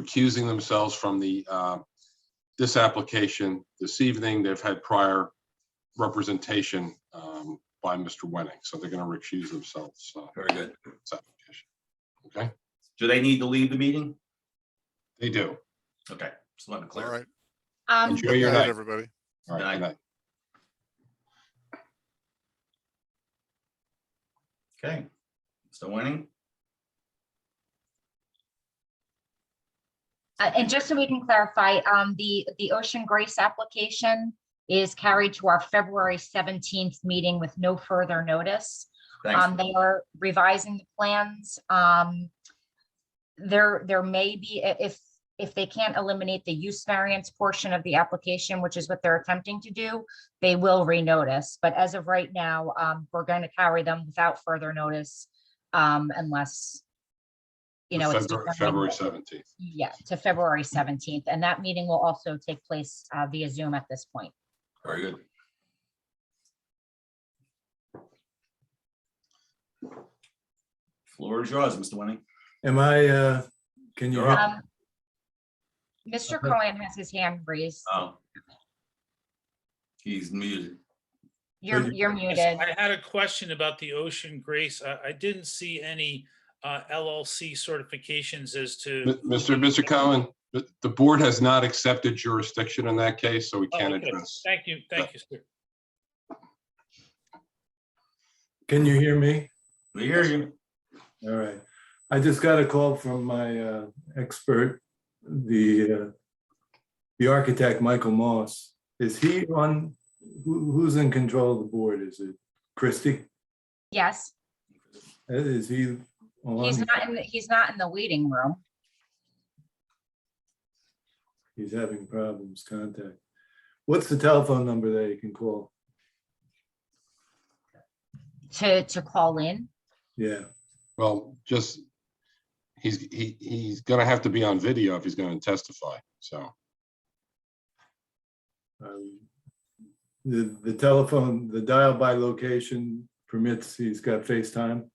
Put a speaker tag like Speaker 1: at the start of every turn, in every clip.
Speaker 1: recusing themselves from the, uh, this application this evening. They've had prior representation um, by Mr. Wenning, so they're going to recuse themselves. uh,
Speaker 2: Very good.
Speaker 1: this application. Okay,
Speaker 2: Do they need to leave the meeting?
Speaker 1: they do.
Speaker 2: Okay, just let it
Speaker 3: All
Speaker 2: clear.
Speaker 3: right.
Speaker 4: Um,
Speaker 1: Enjoy your
Speaker 3: Good night,
Speaker 1: night.
Speaker 3: everybody.
Speaker 1: All right,
Speaker 2: Night.
Speaker 1: good night.
Speaker 2: Okay. Still winning?
Speaker 4: uh, and just so we can clarify, um, the, the Ocean Grace application is carried to our February seventeenth meeting with no further notice. Um,
Speaker 2: Thanks.
Speaker 4: they are revising the plans. Um, there, there may be, i- if, if they can't eliminate the use variance portion of the application, which is what they're attempting to do, they will renotice. But as of right now, um, we're going to carry them without further notice, um, unless, you know, it's
Speaker 1: February-
Speaker 4: determined-
Speaker 1: February 17th.
Speaker 4: Yeah, to February seventeenth, and that meeting will also take place uh, via Zoom at this point.
Speaker 2: Very good. Floor is yours, Mr. Winning.
Speaker 5: Am I, uh, can you,
Speaker 2: You're up.
Speaker 4: Um, Mr. Cohen has his hand raised.
Speaker 2: Oh. He's muted.
Speaker 4: You're,
Speaker 5: you-
Speaker 4: you're
Speaker 6: Yes,
Speaker 4: muted.
Speaker 6: I had a question about the Ocean Grace. I, I didn't see any uh, LLC certifications as to.
Speaker 1: M- Mr. Mr. Cohen, the the board has not accepted jurisdiction in that case, so we
Speaker 6: Oh,
Speaker 1: can't
Speaker 6: okay.
Speaker 1: address.
Speaker 6: Thank you, thank you, sir.
Speaker 5: can you hear me?
Speaker 2: We hear you.
Speaker 5: All right. I just got a call from my uh, expert, the, uh, the architect, Michael Moss. Is he on, who, who's in control of the board? Is it Christie? Uh,
Speaker 4: Yes,
Speaker 5: Is he
Speaker 4: he's
Speaker 5: on?
Speaker 4: not in, the- he's not in the waiting room.
Speaker 5: He's having problems contact. What's the telephone number that you can call?
Speaker 4: to to call in.
Speaker 5: Yeah,
Speaker 1: Well, just, he's, he, he's going to have to be on video if he's going to testify, so.
Speaker 5: um, the, the telephone, the dial by location permits, he's got FaceTime.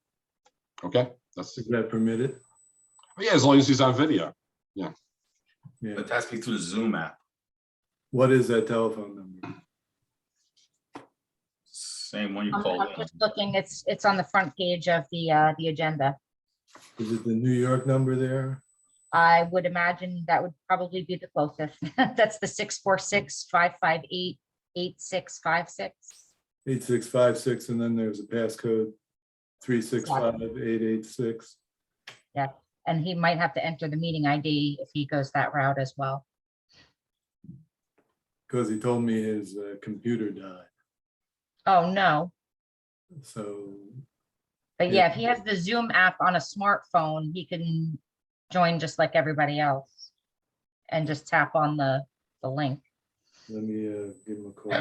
Speaker 1: Okay, that's,
Speaker 5: Is that permitted?
Speaker 1: yeah, as long as he's on video.
Speaker 5: Yeah.
Speaker 2: It has to be through the Zoom app.
Speaker 5: What is that telephone number?
Speaker 2: Same one you
Speaker 4: I'm
Speaker 2: called.
Speaker 4: I'm
Speaker 2: in.
Speaker 4: just looking, it's it's on the front page of the uh the agenda.
Speaker 5: Is it the New York number there?
Speaker 4: I would imagine that would probably be the closest. That's the six four six five five eight eight six five six.
Speaker 5: Eight six five six, and then there's a passcode, three six five eight eight six.
Speaker 4: And he might have to enter the meeting ID if he goes that route as well.
Speaker 5: Because he told me his uh, computer died,
Speaker 4: Oh, no.
Speaker 5: so
Speaker 4: But yeah, if he has the Zoom app on a smartphone, he can join just like everybody else. And just tap on the the link.
Speaker 5: let me uh, give him a call.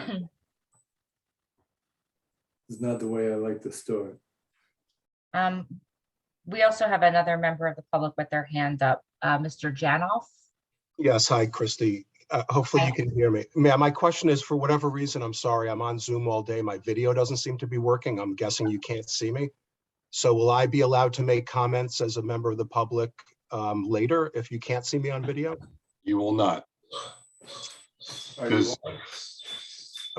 Speaker 5: It's not the way I like to start.
Speaker 4: Um, we also have another member of the public with their hand up, uh, Mr. Janoff.
Speaker 7: Yes, hi, Christy. Uh, Hopefully you
Speaker 4: Hi.
Speaker 7: can hear me. Ma'am, my question is, for whatever reason, I'm sorry, I'm on Zoom all day. My video doesn't seem to be working. I'm guessing you can't see me. So will I be allowed to make comments as a member of the public um, later if you can't see me on video?
Speaker 1: You will not.
Speaker 5: Are you-
Speaker 1: Because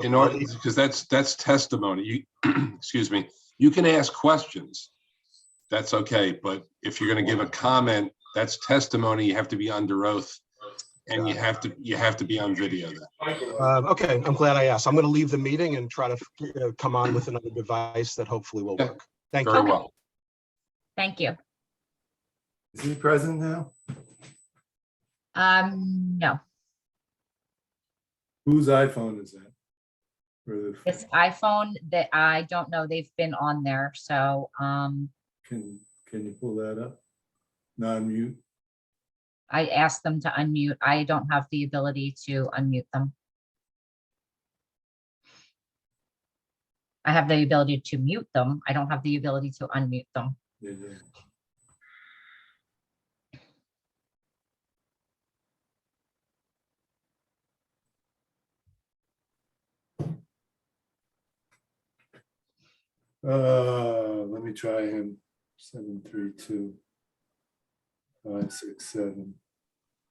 Speaker 1: in order, because that's, that's testimony. You, excuse me, you can ask questions. That's okay, but if you're going to give a comment, that's testimony. You have to be under oath. And you have to, you have to be on video then.
Speaker 7: Uh, Okay, I'm glad I asked. I'm going to leave the meeting and try to you know, come on with another device that hopefully will
Speaker 1: Okay.
Speaker 7: work. Thank you.
Speaker 1: Very well.
Speaker 4: Thank you.
Speaker 5: Is he present now?
Speaker 4: Um, no,
Speaker 5: Whose iPhone is that? Or the-
Speaker 4: this iPhone that I don't know, they've been on there, so, um,
Speaker 5: Can, can you pull that up? Non-mute?
Speaker 4: I asked them to unmute. I don't have the ability to unmute them. I have the ability to mute them. I don't have the ability to unmute them.
Speaker 5: Yeah, yeah. Uh, let me try him. Seven, three, two. Five, six, seven.